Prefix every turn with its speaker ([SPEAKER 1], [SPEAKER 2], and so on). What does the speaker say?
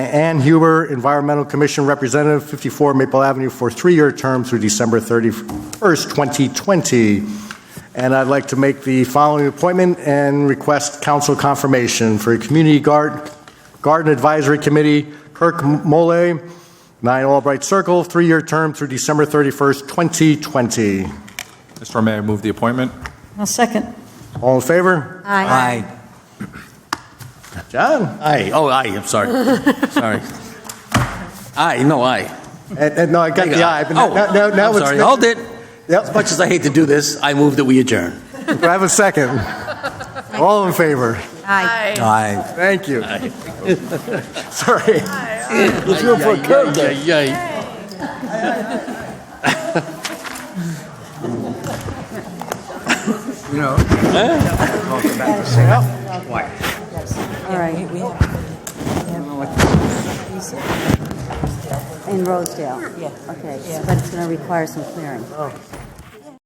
[SPEAKER 1] Ann Huber, Environmental Commission Representative, 54 Maple Avenue, for a three-year term through December 31st, 2020. And I'd like to make the following appointment and request council confirmation for Community Guard- Garden Advisory Committee, Kirk Mole, 9 Albright Circle, three-year term through December 31st, 2020.
[SPEAKER 2] Mr. Mayor, move the appointment.
[SPEAKER 3] I'll second.
[SPEAKER 1] All in favor?
[SPEAKER 4] Aye.
[SPEAKER 1] John?
[SPEAKER 4] Aye, oh, aye, I'm sorry, sorry. Aye, no, aye.
[SPEAKER 1] And, and no, I got the eye, but now,
[SPEAKER 4] Oh,
[SPEAKER 1] now- now
[SPEAKER 4] I'm
[SPEAKER 1] it's...
[SPEAKER 4] sorry, hold it. As
[SPEAKER 1] Yep,
[SPEAKER 4] much as I hate to do this, I move that we adjourn.
[SPEAKER 1] do I have a second? All in favor?
[SPEAKER 5] Aye.
[SPEAKER 4] Aye.
[SPEAKER 1] Thank you. Sorry. Let's go for a curve.
[SPEAKER 6] All right. In Rosedale? Yeah. Okay, but it's going to require some clearing.